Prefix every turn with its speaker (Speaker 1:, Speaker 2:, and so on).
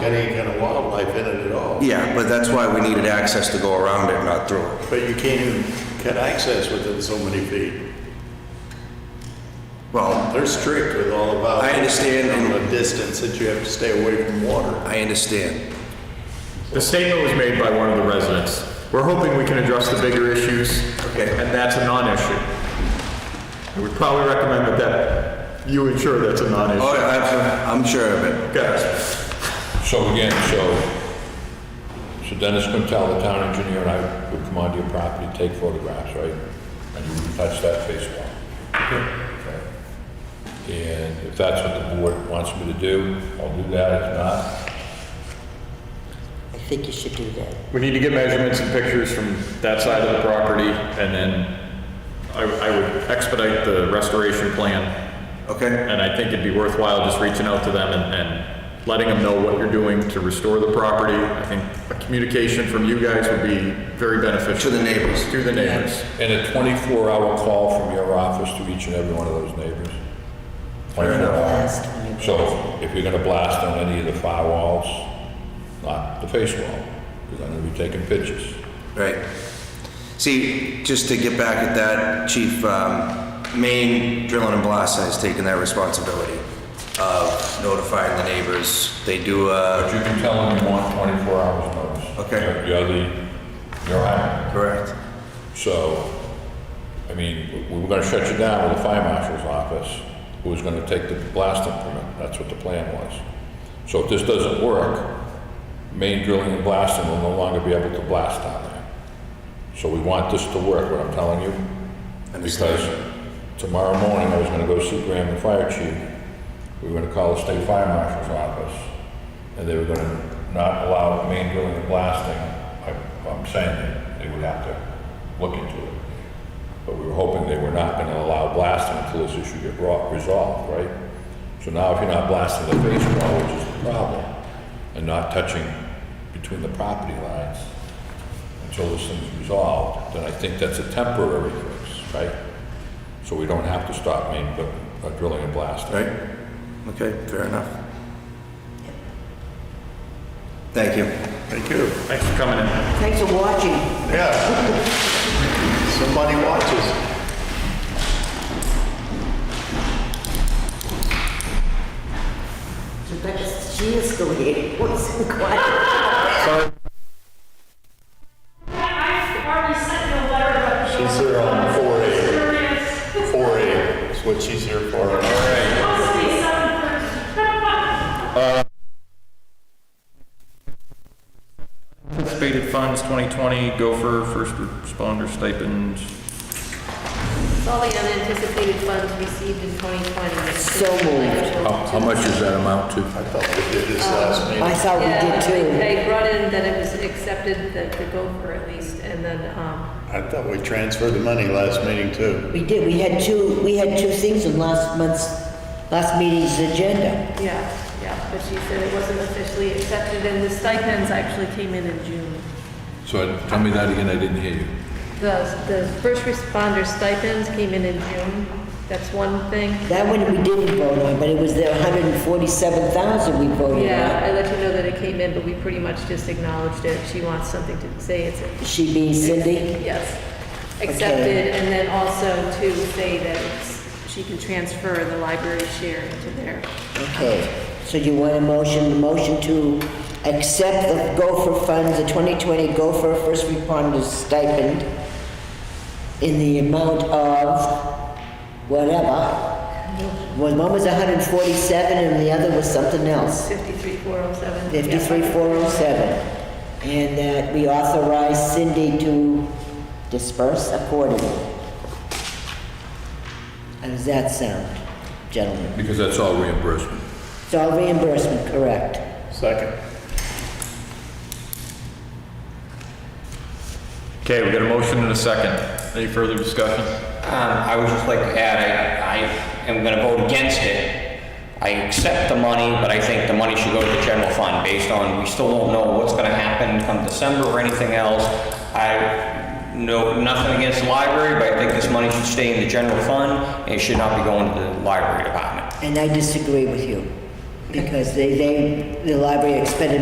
Speaker 1: got any kind of wildlife in it at all.
Speaker 2: Yeah, but that's why we needed access to go around it, not through it.
Speaker 1: But you can't even get access within so many feet.
Speaker 2: Well,
Speaker 1: They're strict with all about.
Speaker 2: I understand.
Speaker 1: The distance that you have to stay away from water.
Speaker 2: I understand.
Speaker 3: The statement was made by one of the residents. We're hoping we can address the bigger issues,
Speaker 2: Okay.
Speaker 3: and that's a non-issue. I would probably recommend that that, you ensure that's a
Speaker 2: Oh,
Speaker 3: non-issue.
Speaker 2: I- I'm, I'm sure of it.
Speaker 3: Yes.
Speaker 4: So again, so, so Dennis Quintel, the town engineer, and I would come onto your property, take photographs, right? And you wouldn't touch that face wall. Okay. And if that's what the board wants me to do, I'll do that, if not,
Speaker 5: I think you should do that.
Speaker 3: We need to get measurements and pictures from that side of the property, and then I, I would expedite the restoration plan,
Speaker 2: Okay?
Speaker 3: and I think it'd be worthwhile just reaching out to them and, and letting them know what you're doing to restore the property. I think a communication from you guys would be very beneficial.
Speaker 2: To the neighbors.
Speaker 3: To the neighbors.
Speaker 4: and a twenty-four hour call from your office to each and every one of those neighbors. Twenty-four hours.
Speaker 5: Last time.
Speaker 4: So if you're gonna blast on any of the fire walls, not the face wall, because I'm gonna be taking pictures.
Speaker 2: Right. See, just to get back at that, Chief, um, Maine Drilling and Blasting has taken that responsibility of notifying the neighbors. They do, uh,
Speaker 4: But you can tell them you want 24 hours notice.
Speaker 2: Okay.
Speaker 4: You're- You're the, you're hiring.
Speaker 2: correct.
Speaker 4: So, I mean, we- we were gonna shut you down with the fire marshal's office, who was gonna take the blasting permit. That's what the plan was. So if this doesn't work, main drilling and blasting will no longer be able to blast down there. So we want this to work, what I'm telling you.
Speaker 2: Understand.
Speaker 4: Because tomorrow morning, I was gonna go see Graham, the fire chief. We were gonna call the state fire marshal's office, and they were gonna not allow main drilling and blasting. I- I'm saying that they would have to look into it. But we were hoping they were not gonna allow blasting until this issue get brought, resolved, right? So now if you're not blasting the face wall, which is the problem, and not touching between the property lines until this thing's resolved, then I think that's a temporary fix, right? So we don't have to stop main, but uh, drilling and blasting.
Speaker 2: Right? Okay, fair enough. Thank you.
Speaker 1: Thank you.
Speaker 3: Thanks for coming in.
Speaker 5: Thanks for watching.
Speaker 1: Yeah. Somebody watches.
Speaker 5: Rebecca, she is still here. What's quiet?
Speaker 6: I've already sent you a letter about the.
Speaker 1: She's there on four A,
Speaker 6: It's
Speaker 1: four A is what she's here for. All right.
Speaker 6: supposed to be seven thirty.
Speaker 7: Anticipated funds 2020, gopher, first responder stipend.
Speaker 8: All the unanticipated funds received in 2020.
Speaker 5: So moved.
Speaker 4: How, Oh, how much does that amount to?
Speaker 1: I thought we did this last meeting.
Speaker 5: I thought we
Speaker 8: Yeah,
Speaker 5: did too.
Speaker 8: They brought in that it was accepted that to go for at least, and then, um,
Speaker 1: I thought we transferred the money last meeting too.
Speaker 5: We did, we had two, we had two things in last month's, last meeting's agenda.
Speaker 8: yeah, yeah, but she said it wasn't officially accepted, and the stipends actually came in in June.
Speaker 4: So tell me that again, I didn't hear you.
Speaker 8: The, the first responder stipends came in in June, that's one thing.
Speaker 5: That one we didn't vote on, but it was the hundred and forty-seven thousand we voted
Speaker 8: Yeah, I
Speaker 5: on.
Speaker 8: let you know that it came in, but we pretty much just acknowledged it, she wants something to say, it's
Speaker 5: She being Cindy,
Speaker 8: Yes,
Speaker 5: Okay.
Speaker 8: accepted, and then also to say that it's- she can transfer the library share into there.
Speaker 5: okay. So you want a motion, a motion to accept the Gopher funds, the twenty twenty Gopher First Responders stipend in the amount of whatever. One one was hundred and forty-seven and the other was something else.
Speaker 8: 53407. yeah.
Speaker 5: 53407, and that we authorize Cindy to disperse accordingly. How does that sound, gentlemen?
Speaker 4: Because that's all reimbursement.
Speaker 5: It's all reimbursement, correct?
Speaker 1: Second.
Speaker 3: Okay, we got a motion and a second. Any further discussion?
Speaker 9: Um, I would just like to add, I, I am gonna vote against it. I accept the money, but I think the money should go to the general fund based on, we still don't know what's gonna happen come December or anything else. I know nothing against the library, but I think this money should stay in the general fund and it should not be going to the library department.
Speaker 5: And I disagree with you. because they, they, the library expended